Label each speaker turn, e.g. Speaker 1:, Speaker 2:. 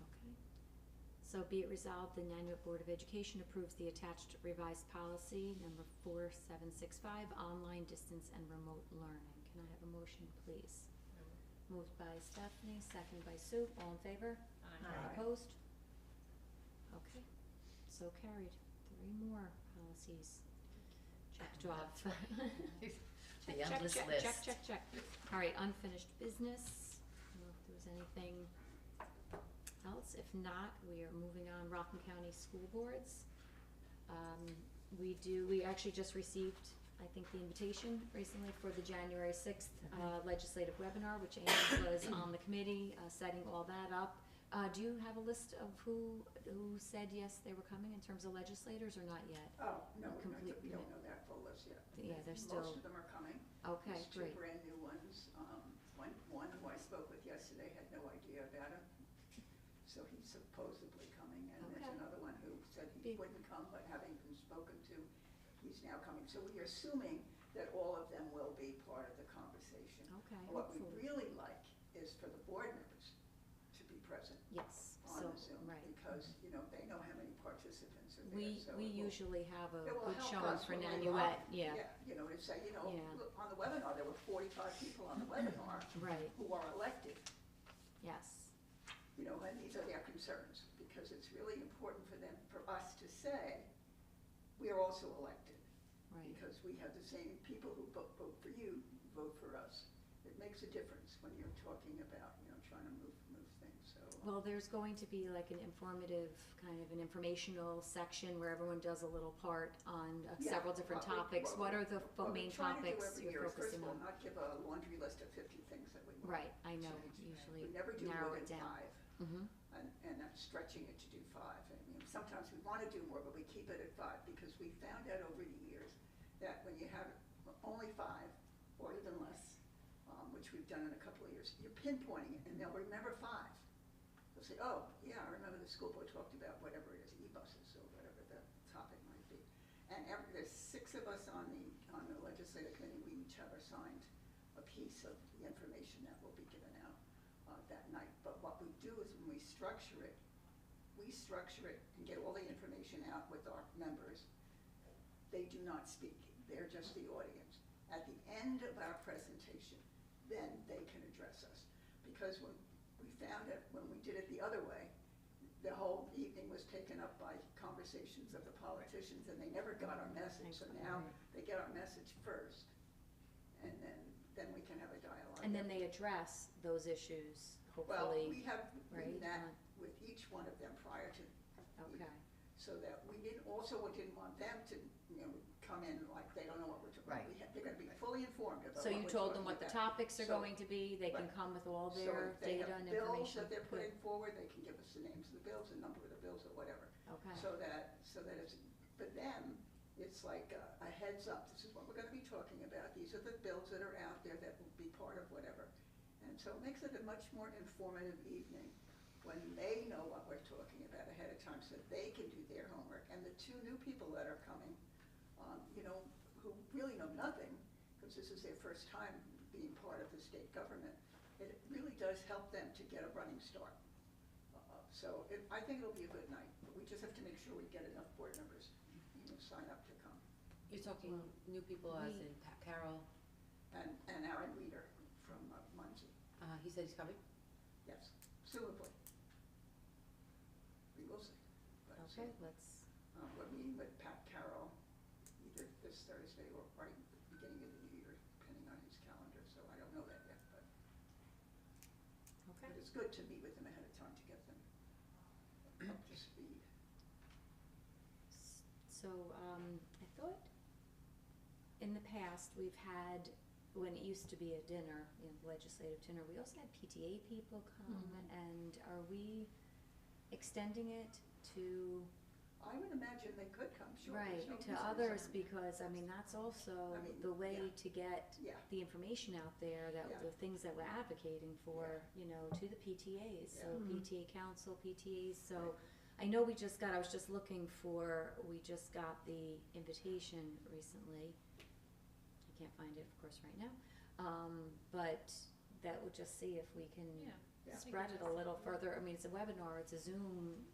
Speaker 1: So be it resolved, the Nanuet Board of Education approves the attached revised policy number four seven six five, online distance and remote learning. Can I have a motion, please? Moved by Stephanie, second by Sue, all in favor?
Speaker 2: Aye.
Speaker 1: Opposed? Okay, so carried. Three more policies. Checked off. Check,
Speaker 2: The
Speaker 1: check,
Speaker 2: endless
Speaker 1: check,
Speaker 2: list.
Speaker 1: Check, check, check. All right, unfinished business. I don't know if there was anything else. If not, we are moving on. Rockland County School Boards. Um, we do, we actually just received, I think, the invitation recently for the January sixth,
Speaker 2: Mm-hmm.
Speaker 1: uh, legislative webinar, which Amy was on the committee, uh, setting all that up. Uh, do you have a list of who, who said yes they were coming in terms of legislators or not yet?
Speaker 3: Oh, no, we're not-
Speaker 1: Complete
Speaker 3: we don't
Speaker 1: commit-
Speaker 3: know that full list yet.
Speaker 1: Yeah, they're
Speaker 3: Most
Speaker 1: still,
Speaker 3: of them are coming.
Speaker 1: okay,
Speaker 3: There's two
Speaker 1: great,
Speaker 3: brand new ones. Um, One, one who I spoke with yesterday had no idea about him, so he's supposedly coming. And there's
Speaker 1: Okay.
Speaker 3: another one who said he
Speaker 1: Be-
Speaker 3: wouldn't come, but having been spoken to, he's now coming. So we're assuming that all of them will be part of the conversation.
Speaker 1: okay,
Speaker 3: What we
Speaker 1: hopefully,
Speaker 3: really like is for the board members to be present
Speaker 1: yes,
Speaker 3: on
Speaker 1: so,
Speaker 3: the Zoom.
Speaker 1: right.
Speaker 3: Because, you know, they know how many participants are there,
Speaker 1: We,
Speaker 3: so
Speaker 1: we
Speaker 3: it will
Speaker 1: usually have a
Speaker 3: It will
Speaker 1: good
Speaker 3: help
Speaker 1: showing
Speaker 3: us
Speaker 1: for
Speaker 3: when we
Speaker 1: Nanuet,
Speaker 3: are-
Speaker 1: yeah,
Speaker 3: You know, to say, you know,
Speaker 1: Yeah.
Speaker 3: look, on the webinar, there were forty-five people on the webinar
Speaker 1: right,
Speaker 3: who are elected,
Speaker 1: yes,
Speaker 3: you know, and these are their concerns, because it's really important for them, for us to say, we are also elected,
Speaker 1: right,
Speaker 3: because we have the same people who vote, vote for you, vote for us. It makes a difference when you're talking about, you know, trying to move, move things, so. uh,
Speaker 1: Well, there's going to be like an informative, kind of an informational section where everyone does a little part on uh,
Speaker 3: Yeah,
Speaker 1: several different
Speaker 3: what we-
Speaker 1: topics.
Speaker 3: what
Speaker 1: What
Speaker 3: we-
Speaker 1: are the fo-
Speaker 3: what we
Speaker 1: main
Speaker 3: try to do
Speaker 1: topics
Speaker 3: every year
Speaker 1: you're
Speaker 3: is
Speaker 1: focusing
Speaker 3: First of all,
Speaker 1: on?
Speaker 3: not give a laundry list of fifty things that we want.
Speaker 1: Right, I know,
Speaker 3: change. We
Speaker 1: usually,
Speaker 3: never do
Speaker 1: narrow
Speaker 3: more
Speaker 1: it
Speaker 3: than
Speaker 1: down.
Speaker 3: five.
Speaker 1: mhm,
Speaker 3: and, and I'm stretching it to do five. I mean, sometimes we want to do more, but we keep it at five because we found out over the years that when you have only five or even less, um, which we've done in a couple of years, you're pinpointing it and they'll remember five. They'll say, oh, yeah, I remember the school board talked about whatever it is, e-buses or whatever the topic might be. And every, there's six of us on the, on the legislative committee, we each have assigned a piece of the information that will be given out uh, that night. But what we do is when we structure it, we structure it and get all the information out with our members. They do not speak, they're just the audience. At the end of our presentation, then they can address us. Because when we found it, when we did it the other way, the whole evening was taken up by conversations of the politicians and they never got our message. So now they get our message first and then, then we can have a dialogue.
Speaker 1: And then they address those issues,
Speaker 3: Well,
Speaker 1: hopefully,
Speaker 3: we have
Speaker 1: right?
Speaker 3: written that
Speaker 1: on-
Speaker 3: with each one of them prior to,
Speaker 1: Okay,
Speaker 3: so that we didn't, also we didn't want them to, you know, come in like they don't know what we're talking about.
Speaker 2: Right.
Speaker 3: We have- They're gonna be fully informed about
Speaker 1: so
Speaker 3: what
Speaker 1: you
Speaker 3: we're
Speaker 1: told them what
Speaker 3: talking
Speaker 1: the
Speaker 3: about.
Speaker 1: topics are
Speaker 3: So-
Speaker 1: going to be, they can
Speaker 3: right.
Speaker 1: come with all
Speaker 3: So
Speaker 1: their
Speaker 3: if they have
Speaker 1: data and information.
Speaker 3: Bills that they're
Speaker 1: Good.
Speaker 3: putting forward, they can give us the names of the bills, the number of the bills or whatever.
Speaker 1: Okay,
Speaker 3: So that, so that it's, for them, it's like a a heads up, this is what we're gonna be talking about, these are the bills that are out there that will be part of whatever. And so it makes it a much more informative evening when they know what we're talking about ahead of time, so they can do their homework. And the two new people that are coming, um, you know, who really know nothing, because this is their first time being part of the state government, it really does help them to get a running start. Uh, So it, I think it'll be a good night, but we just have to make sure we get enough board members, you know, sign up to come.
Speaker 4: You're talking new people as in Pa- Carol,
Speaker 3: And, and Aaron Reader from uh, Muncie,
Speaker 4: uh, he said he's coming?
Speaker 3: yes, presumably. We will see. but we'll see.
Speaker 1: okay, let's,
Speaker 3: Uh, we're meeting with Pat Carroll either this Thursday or right at the beginning of the new year, depending on his calendar, so I don't know that yet, but,
Speaker 1: okay,
Speaker 3: but it's good to meet with them ahead of time to get them up to speed.
Speaker 1: S- So, um, I thought in the past, we've had, when it used to be a dinner, you know, legislative dinner, we also had PTA people come and are we extending it to,
Speaker 3: I would imagine they could come, sure. there's
Speaker 1: right,
Speaker 3: no
Speaker 1: to
Speaker 3: reason
Speaker 1: others
Speaker 3: someone-
Speaker 1: because, I mean, that's also
Speaker 3: I mean,
Speaker 1: the way
Speaker 3: yeah.
Speaker 1: to get
Speaker 3: Yeah,
Speaker 1: the information out there that
Speaker 3: Yeah.
Speaker 1: the things that we're advocating for, you know, to the PTAs, so
Speaker 3: Yeah.
Speaker 2: Mhm.
Speaker 1: PTA council, PTAs, so I know we just got, I was just looking for, we just got the invitation recently. I can't find it, of course, right now, um, but that would just see if we can
Speaker 2: Yeah.
Speaker 1: spread it a little further. I mean, it's a webinar, it's a Zoom